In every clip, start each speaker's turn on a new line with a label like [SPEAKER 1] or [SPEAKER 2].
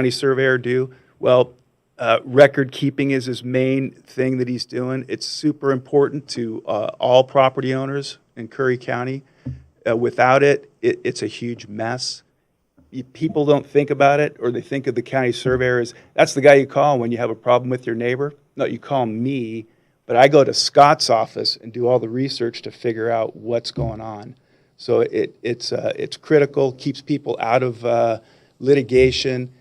[SPEAKER 1] county surveyor do? Well, uh, record keeping is his main thing that he's doing. It's super important to uh, all property owners in Curry County. Uh, Without it, it, it's a huge mess. You- People don't think about it, or they think of the county surveyor as, that's the guy you call when you have a problem with your neighbor. No, you call me, but I go to Scott's office and do all the research to figure out what's going on. So it, it's, uh, it's critical, keeps people out of uh, litigation,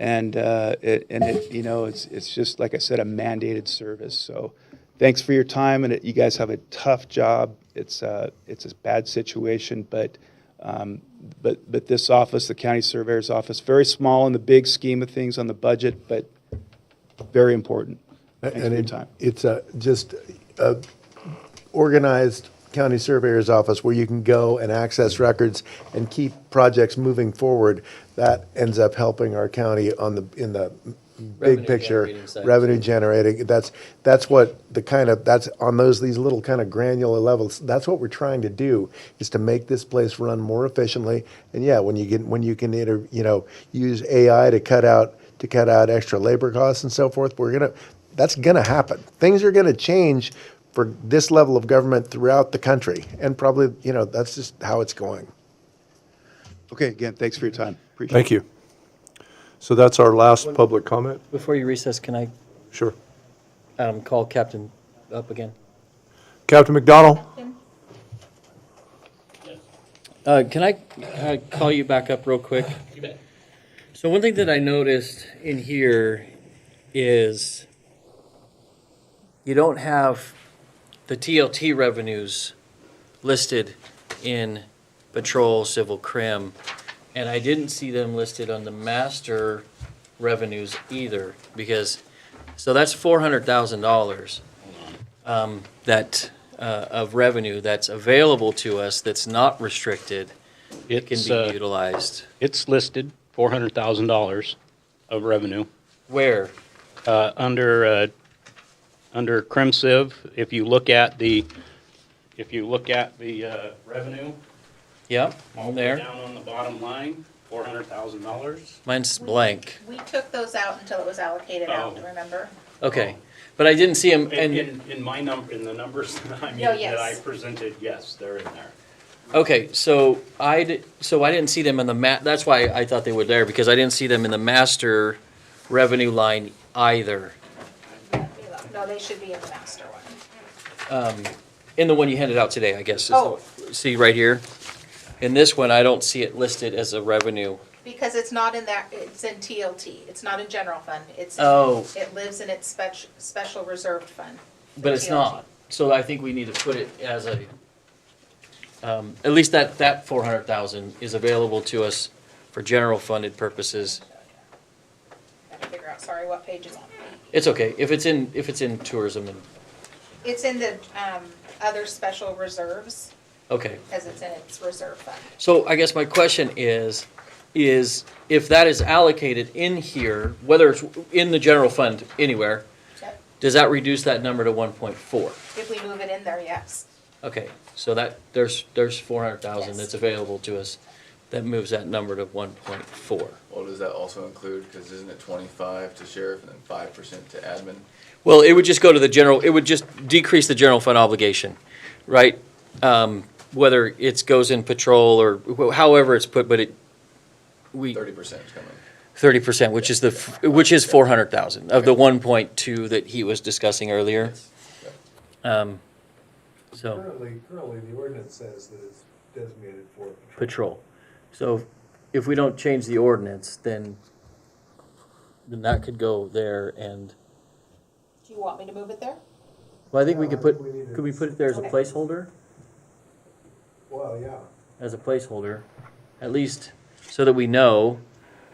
[SPEAKER 1] and, uh, it, and it, you know, it's, it's just, like I said, a mandated service. So thanks for your time, and it- you guys have a tough job. It's, uh, it's a bad situation, but, um, but, but this office, the county surveyor's office, very small in the big scheme of things on the budget, but very important. Thanks for
[SPEAKER 2] And
[SPEAKER 1] your
[SPEAKER 2] it-
[SPEAKER 1] time.
[SPEAKER 2] It's a, just a organized county surveyor's office where you can go and access records and keep projects moving forward. That ends up helping our county on the, in the big
[SPEAKER 3] Revenue
[SPEAKER 2] picture.
[SPEAKER 3] generating side.
[SPEAKER 2] Revenue generating, that's, that's what the kind of, that's on those, these little kind of granular levels, that's what we're trying to do, is to make this place run more efficiently. And yeah, when you get, when you can, inter- you know, use AI to cut out, to cut out extra labor costs and so forth, we're gonna, that's gonna happen. Things are gonna change for this level of government throughout the country, and probably, you know, that's just how it's going.
[SPEAKER 1] Okay, again, thanks for your time. Appreciate it.
[SPEAKER 4] Thank you. So that's our last public comment?
[SPEAKER 3] Before you recess, can I
[SPEAKER 4] Sure.
[SPEAKER 3] um, call Captain up again?
[SPEAKER 4] Captain McDonald?
[SPEAKER 3] Uh, Can I uh, call you back up real quick? You bet. So one thing that I noticed in here is you don't have the TLT revenues listed in patrol, civil, crim, and I didn't see them listed on the master revenues either, because, so that's $400,000 um, that, uh, of revenue that's available to us, that's not restricted, can
[SPEAKER 5] It's,
[SPEAKER 3] be
[SPEAKER 5] uh,
[SPEAKER 3] utilized.
[SPEAKER 5] it's listed, four hundred thousand dollars of revenue.
[SPEAKER 3] Where?
[SPEAKER 5] Uh, under, uh, under CrimSiv, if you look at the, if you look at the, uh, revenue.
[SPEAKER 3] Yep,
[SPEAKER 5] all the way
[SPEAKER 3] there.
[SPEAKER 5] Down on the bottom line, four hundred thousand dollars.
[SPEAKER 3] Mine's blank.
[SPEAKER 6] We took those out until it was allocated out,
[SPEAKER 5] Oh.
[SPEAKER 6] remember?
[SPEAKER 3] Okay, but I didn't see them,
[SPEAKER 5] In,
[SPEAKER 3] and,
[SPEAKER 5] in, in my number, in the numbers that I mean,
[SPEAKER 6] No,
[SPEAKER 5] that I
[SPEAKER 6] yes.
[SPEAKER 5] presented, yes, they're in there.
[SPEAKER 3] okay, so I, di- so I didn't see them in the ma, that's why I thought they were there, because I didn't see them in the master revenue line either,
[SPEAKER 6] No, they should be in the master one.
[SPEAKER 3] in the one you handed out today, I guess. is the-
[SPEAKER 6] Oh.
[SPEAKER 3] See right here? In this one, I don't see it listed as a revenue.
[SPEAKER 6] Because it's not in that, it's in TLT, it's not in general fund, it's. in-
[SPEAKER 3] Oh.
[SPEAKER 6] It lives in its spec, special reserved fund.
[SPEAKER 3] But it's
[SPEAKER 6] TLT.
[SPEAKER 3] not, so I think we need to put it as a, um, at least that, that four hundred thousand is available to us for general funded purposes.
[SPEAKER 6] Gotta figure out, sorry, what page is on.
[SPEAKER 3] It's okay, if it's in, if it's in tourism and,
[SPEAKER 6] It's in the, um, other special reserves,
[SPEAKER 3] okay.
[SPEAKER 6] because it's in its reserve fund.
[SPEAKER 3] So I guess my question is, is if that is allocated in here, whether it's in the general fund anywhere,
[SPEAKER 6] Yep.
[SPEAKER 3] does that reduce that number to one point four?
[SPEAKER 6] If we move it in there, yes.
[SPEAKER 3] Okay, so that, there's, there's four hundred thousand
[SPEAKER 6] Yes.
[SPEAKER 3] that's available to us, that moves that number to one point four.
[SPEAKER 7] Well, does that also include, because isn't it twenty-five to sheriff and then five percent to admin?
[SPEAKER 3] Well, it would just go to the general, it would just decrease the general fund obligation, right? Um, whether it's goes in patrol or wh- however it's put, but it, we,
[SPEAKER 7] Thirty percent is coming.
[SPEAKER 3] thirty percent, which is the, f- which is four hundred thousand of the one point two that he was discussing earlier. Um, so,
[SPEAKER 8] Currently, currently, the ordinance says that it's designated for patrol.
[SPEAKER 3] patrol. So if we don't change the ordinance, then, then that could go there and,
[SPEAKER 6] Do you want me to move it there?
[SPEAKER 3] well, I think we
[SPEAKER 8] Yeah,
[SPEAKER 3] could
[SPEAKER 8] I
[SPEAKER 3] put,
[SPEAKER 8] think we need to-
[SPEAKER 3] could we put it there as a
[SPEAKER 6] Okay.
[SPEAKER 3] placeholder?
[SPEAKER 8] Well, yeah.
[SPEAKER 3] as a placeholder, at least so that we know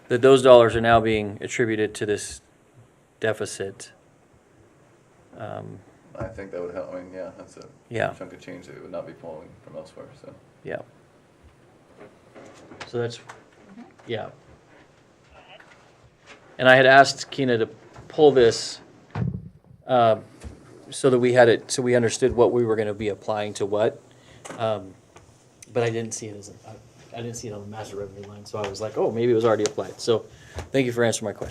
[SPEAKER 3] that those dollars are now being attributed to this deficit. Um,
[SPEAKER 7] I think that would help, I mean, yeah, that's a
[SPEAKER 3] Yeah,
[SPEAKER 7] chunk of change that would not be pulling from elsewhere, so.
[SPEAKER 3] yeah. So that's, yeah. And I had asked Keena to pull this uh, so that we had it, so we understood what we were going to be applying to what. Um, But I didn't see it as, a- I- I didn't see it on the master revenue line, so I was like, oh, maybe it was already applied. So thank you for answering my question.